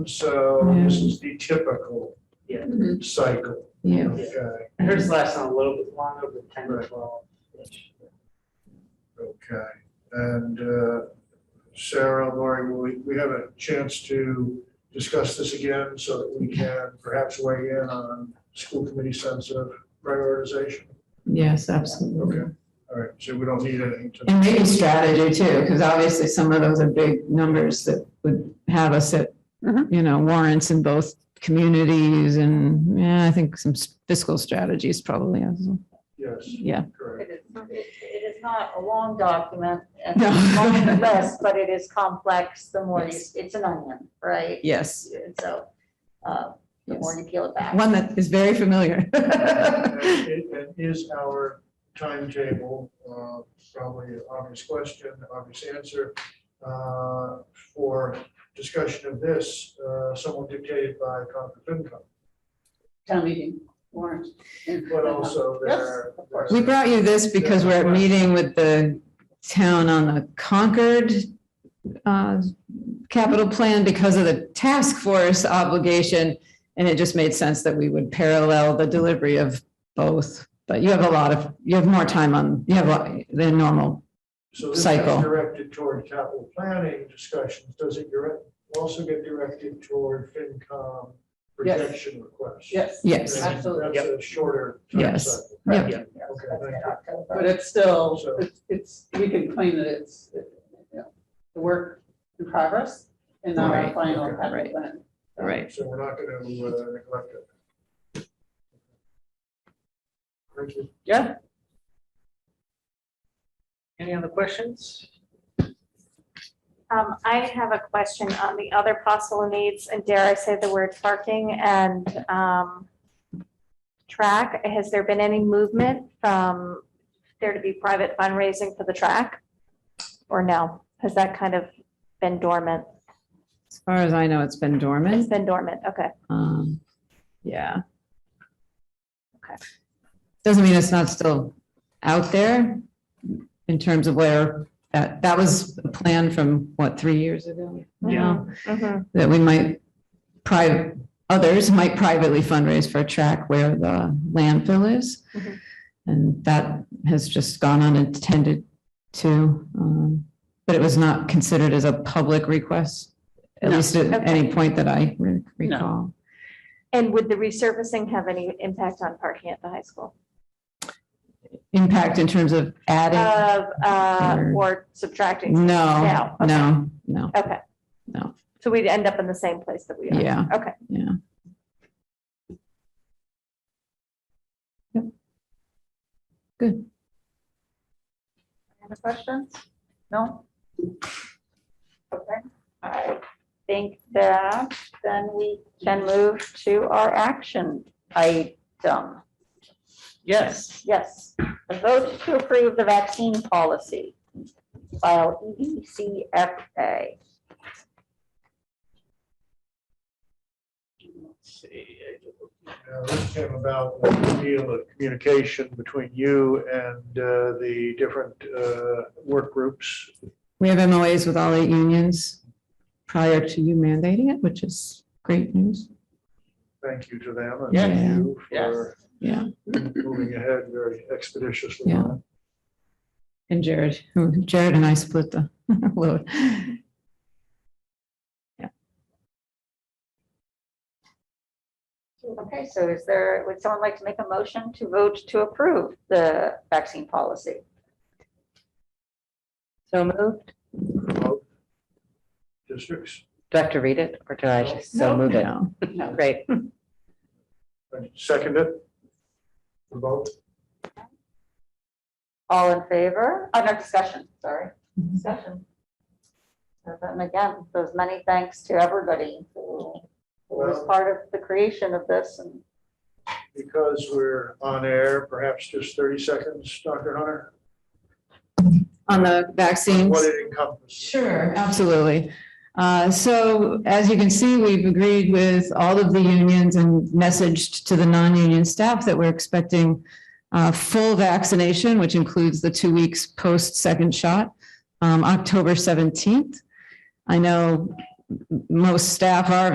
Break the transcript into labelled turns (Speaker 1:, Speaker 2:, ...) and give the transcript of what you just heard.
Speaker 1: So this is the typical
Speaker 2: Yeah.
Speaker 1: cycle.
Speaker 3: Mm-hmm. Yeah.
Speaker 1: Okay,
Speaker 2: Hers
Speaker 3: Mm-hmm.
Speaker 2: lasts on a little bit longer, but ten or twelve.
Speaker 1: okay. And uh, Sarah, Lori, will we, we have a chance to discuss this again so that we can perhaps weigh in on school committee sense of prioritization?
Speaker 3: Yes, absolutely.
Speaker 1: Okay, all right, so we don't need anything to,
Speaker 3: And maybe strategy too, because obviously some of those are big numbers that would have us at,
Speaker 4: Mhm.
Speaker 3: you know, warrants in both communities and, yeah, I think some fiscal strategies probably, as well.
Speaker 1: yes,
Speaker 3: yeah.
Speaker 1: correct.
Speaker 4: It is- it is not a long document, and
Speaker 3: No.
Speaker 4: it's long and less, but it is complex, the more you,
Speaker 3: Yes.
Speaker 4: it's an onion, right?
Speaker 3: Yes.
Speaker 4: And so, uh, the more
Speaker 3: yes.
Speaker 4: you peel it back.
Speaker 3: One that is very familiar.
Speaker 1: And it- and is our timetable, uh, probably an obvious question, obvious answer, uh, for discussion of this, uh, somewhat dictated by Concord FinCom,
Speaker 4: Town meeting warrant.
Speaker 1: but also their.
Speaker 4: Yes, of course.
Speaker 3: We brought you this because we're at meeting with the town on the Concord uh, capital plan because of the task force obligation. And it just made sense that we would parallel the delivery of both. But you have a lot of, you have more time on, you have a- than normal.
Speaker 1: So this
Speaker 3: cycle.
Speaker 1: is directed toward capital planning discussions, does it direct, also get directed toward FinCom
Speaker 5: Yes.
Speaker 1: projection requests?
Speaker 5: Yes,
Speaker 3: Yes,
Speaker 5: absolutely.
Speaker 1: That's a shorter. time
Speaker 3: Yes.
Speaker 1: cycle.
Speaker 3: yeah,
Speaker 1: Okay, thank you.
Speaker 5: but it's still, it's- it's, we can claim that it's, you know, the work in progress and not our
Speaker 3: Right,
Speaker 5: final
Speaker 1: okay,
Speaker 5: capital
Speaker 3: right.
Speaker 5: plan.
Speaker 3: right.
Speaker 1: So we're not gonna uh, neglect it. Thank you.
Speaker 2: Yeah. Any other questions?
Speaker 6: Um, I have a question on the other possible needs, and dare I say the word parking and, um, track. Has there been any movement from there to be private fundraising for the track? Or no? Has that kind of been dormant?
Speaker 3: As far as I know, it's been
Speaker 6: It's
Speaker 3: dormant.
Speaker 6: been dormant, okay.
Speaker 3: Um, Yeah.
Speaker 6: Okay.
Speaker 3: Doesn't mean it's not still out there in terms of where, that, that was a plan from, what, three years ago?
Speaker 2: Yeah.
Speaker 6: Mhm.
Speaker 3: That we might private, others might privately fundraise for a track where the landfill is.
Speaker 6: Mhm.
Speaker 3: And that has just gone unattended to, um, but it was not considered as a public request, at
Speaker 5: No.
Speaker 3: least at any point that I re-
Speaker 5: No.
Speaker 3: recall.
Speaker 6: And would the resurfacing have any impact on parking at the high school?
Speaker 3: impact in terms of adding?
Speaker 6: Uh, uh,
Speaker 3: Or-
Speaker 6: or subtracting?
Speaker 3: No,
Speaker 6: No, okay.
Speaker 3: no, no,
Speaker 6: Okay.
Speaker 3: Mm. No.
Speaker 6: So we'd end up in the same place that we are?
Speaker 3: yeah.
Speaker 6: Okay.
Speaker 3: Yeah. Yep. Good.
Speaker 4: Any questions? No? Okay, I think that then we can move to our action item.
Speaker 5: Yes,
Speaker 4: Yes, a vote to approve the vaccine policy, file E EDCFA.
Speaker 2: Let's see.
Speaker 1: Now, uh, This came about with the deal of communication between you and uh, the different uh, work groups.
Speaker 3: We have MOAs with all eight unions prior to you mandating it, which is great news.
Speaker 1: Thank you to them and
Speaker 3: Yes.
Speaker 1: thank you
Speaker 5: Yes.
Speaker 1: for
Speaker 3: Yeah.
Speaker 1: moving ahead very expeditiously.
Speaker 3: Yeah. And Jared, who- Jared and I split the load.
Speaker 4: Okay, so is there, would someone like to make a motion to vote to approve the vaccine policy?
Speaker 7: So moved.
Speaker 1: Remote Districts,
Speaker 7: Do I have to read it or do I just so move it?
Speaker 3: No.
Speaker 5: no,
Speaker 7: Great.
Speaker 1: And second it. Remote,
Speaker 4: All in favor? Oh, no, discussion, sorry. Discussion. So then again, those many thanks to everybody who who was part of the creation of this and
Speaker 1: because we're on air, perhaps just 30 seconds, Dr. Hunter.
Speaker 3: On the vaccines.
Speaker 1: What it encompasses.
Speaker 3: Sure, absolutely. Uh, So as you can see, we've agreed with all of the unions and messaged to the non-union staff that we're expecting uh, full vaccination, which includes the two weeks post-second shot, um, October 17th. I know m- most staff are